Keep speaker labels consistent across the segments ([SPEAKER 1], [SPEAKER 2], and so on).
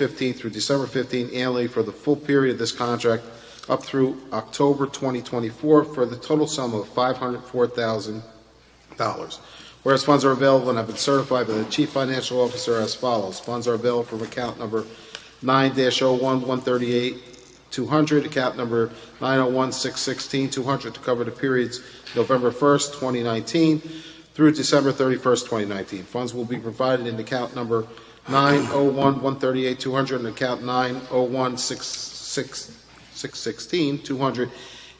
[SPEAKER 1] 15th through December 15th annually for the full period of this contract up through October 2024 for the total sum of $504,000. Whereas funds are available and have been certified by the Chief Financial Officer as follows. Funds are available from account number 9-01-138-200, account number 901-616-200 to cover the periods November 1st, 2019 through December 31st, 2019. Funds will be provided in account number 901-138-200 and account 901-616-200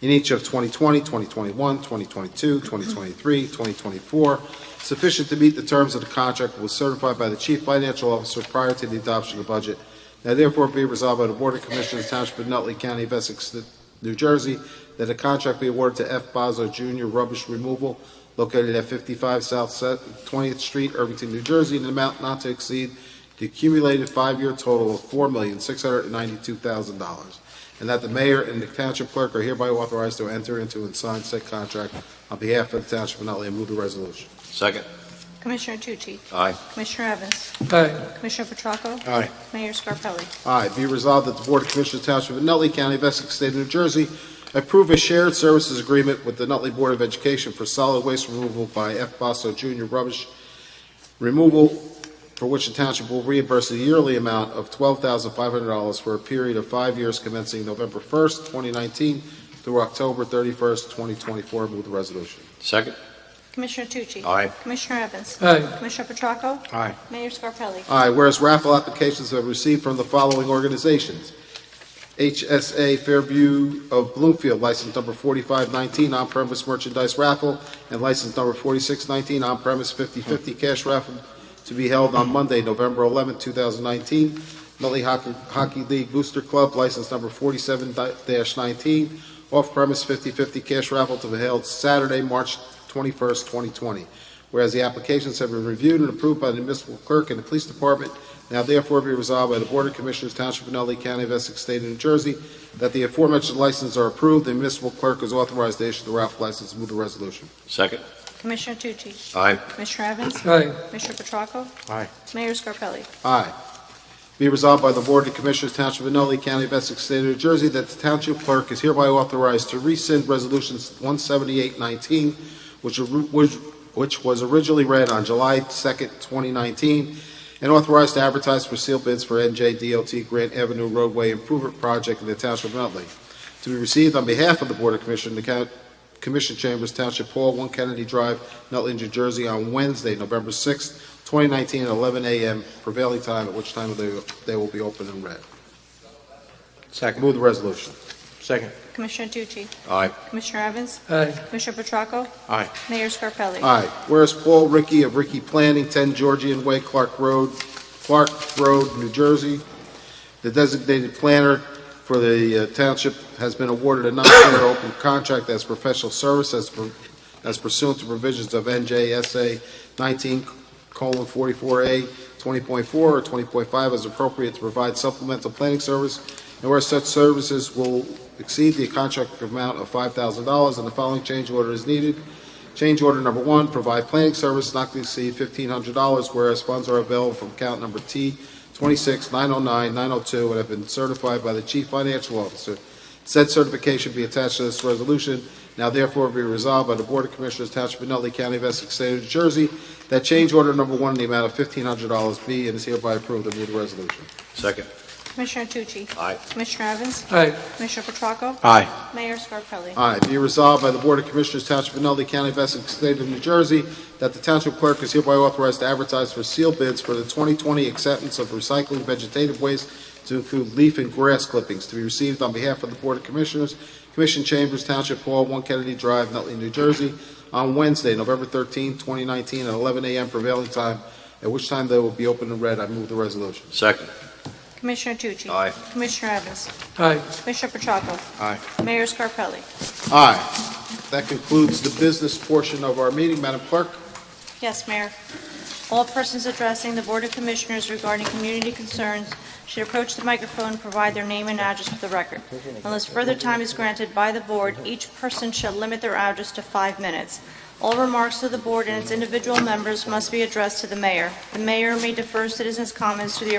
[SPEAKER 1] in each of 2020, 2021, 2022, 2023, 2024, sufficient to meet the terms of the contract was certified by the Chief Financial Officer prior to the adoption of the budget. Now therefore be resolved by the Board of Commissioners Township of Nutley County of Essex, New Jersey, that a contract be awarded to F. Bozzo Jr. Rubbish Removal located at 55 South Se- 20th Street, Irvington, New Jersey, in an amount not to exceed the accumulated five-year total of $4,692,000, and that the mayor and the township clerk are hereby authorized to enter into and sign said contract on behalf of the township of Nutley. I move the resolution.
[SPEAKER 2] Second.
[SPEAKER 3] Commissioner Tucci?
[SPEAKER 2] Aye.
[SPEAKER 3] Commissioner Evans?
[SPEAKER 4] Aye.
[SPEAKER 3] Commissioner Petracco?
[SPEAKER 1] Aye.
[SPEAKER 3] Mayor Scarpelli?
[SPEAKER 1] Aye, be resolved that the Board of Commissioners Township of Nutley County of Essex State of New Jersey approve a shared services agreement with the Nutley Board of Education for solid waste removal by F. Basso Jr. Rubbish Removal, for which the township will reimburse a yearly amount of $12,500 for a period of five years commencing November 1st, 2019 through October 31st, 2024. Move the resolution.
[SPEAKER 2] Second.
[SPEAKER 3] Commissioner Tucci?
[SPEAKER 2] Aye.
[SPEAKER 3] Commissioner Evans?
[SPEAKER 4] Aye.
[SPEAKER 3] Commissioner Petracco?
[SPEAKER 1] Aye.
[SPEAKER 3] Mayor Scarpelli?
[SPEAKER 1] Aye, whereas raffle applications have received from the following organizations. HSA Fairview of Bloomfield, license number 4519, on-premise merchandise raffle, and license number 4619, on-premise 50/50 cash raffle to be held on Monday, November 11, 2019. Nutley Hockey Hockey League Booster Club, license number 47-19, off-premise 50/50 cash raffle to be held Saturday, March 21st, 2020. Whereas the applications have been reviewed and approved by the municipal clerk and the police department, now therefore be resolved by the Board of Commissioners, Township of Nutley County of Essex State of New Jersey, that the aforementioned licenses are approved, the municipal clerk is authorized to issue the raffle license. Move the resolution.
[SPEAKER 2] Second.
[SPEAKER 3] Commissioner Tucci?
[SPEAKER 2] Aye.
[SPEAKER 3] Commissioner Evans?
[SPEAKER 4] Aye.
[SPEAKER 3] Commissioner Petracco?
[SPEAKER 1] Aye.
[SPEAKER 3] Mayor Scarpelli?
[SPEAKER 1] Aye. Be resolved by the Board of Commissioners, Township of Nutley County of Essex State of New Jersey, that the Township Clerk is hereby authorized to rescind Resolution 17819, which, which, which was originally read on July 2nd, 2019, and authorized to advertise for sealed bids for NJDOT Grant Avenue roadway improvement project in the Township of Nutley, to be received on behalf of the Board of Commissioners, the Coun- Commission Chambers, Township Hall, 1 Kennedy Drive, Nutley, New Jersey, on Wednesday, November 6th, 2019 at 11 a.m. prevailing time, at which time they, they will be open and read.
[SPEAKER 2] Second.
[SPEAKER 1] Move the resolution.
[SPEAKER 2] Second.
[SPEAKER 3] Commissioner Tucci?
[SPEAKER 2] Aye.
[SPEAKER 3] Commissioner Evans?
[SPEAKER 4] Aye.
[SPEAKER 3] Commissioner Petracco?
[SPEAKER 2] Aye.
[SPEAKER 3] Mayor Scarpelli?
[SPEAKER 1] Aye. Whereas Paul Ricky of Ricky Planning, 10 Georgian Way, Clark Road, Clark Road, New Jersey, the designated planner for the uh, township, has been awarded a non-tender open contract as professional service as per- as pursuant to provisions of NJSA 19:44A 20.4 or 20.5 as appropriate to provide supplemental planning service, and where such services will exceed the contract amount of $5,000, and the following change order is needed. Change order number one, provide planning service not to exceed fifteen hundred dollars, whereas funds are available from account number T twenty-six nine oh nine nine oh two and have been certified by the chief financial officer. Said certification be attached to this resolution. Now therefore be resolved by the Board of Commissioners, Township of Nutley County of Essex, State of New Jersey, that change order number one in the amount of fifteen hundred dollars be and is hereby approved. I move the resolution.
[SPEAKER 2] Second.
[SPEAKER 3] Commissioner Tucci?
[SPEAKER 2] Aye.
[SPEAKER 3] Commissioner Evans?
[SPEAKER 4] Aye.
[SPEAKER 3] Commissioner Petracco?
[SPEAKER 2] Aye.
[SPEAKER 3] Mayor Scarpelli?
[SPEAKER 1] Aye, be resolved by the Board of Commissioners, Township of Nutley County of Essex, State of New Jersey, that the Township Clerk is hereby authorized to advertise for sealed bids for the 2020 acceptance of recycling vegetative waste to include leaf and grass clippings to be received on behalf of the Board of Commissioners, Commission Chambers, Township Hall, 1 Kennedy Drive, Nutley, New Jersey, on Wednesday, November 13, 2019, at 11 a.m. prevailing time, at which time they will be open and read. I move the resolution.
[SPEAKER 2] Second.
[SPEAKER 3] Commissioner Tucci?
[SPEAKER 2] Aye.
[SPEAKER 3] Commissioner Evans?
[SPEAKER 4] Aye.
[SPEAKER 3] Commissioner Petracco?
[SPEAKER 2] Aye.
[SPEAKER 3] Mayor Scarpelli?
[SPEAKER 1] Aye, that concludes the business portion of our meeting. Madam Clerk?
[SPEAKER 3] Yes, Mayor. All persons addressing the Board of Commissioners regarding community concerns should approach the microphone and provide their name and address for the record. Unless further time is granted by the Board, each person shall limit their address to five minutes. All remarks to the Board and its individual members must be addressed to the Mayor. The Mayor may defer citizens' comments to the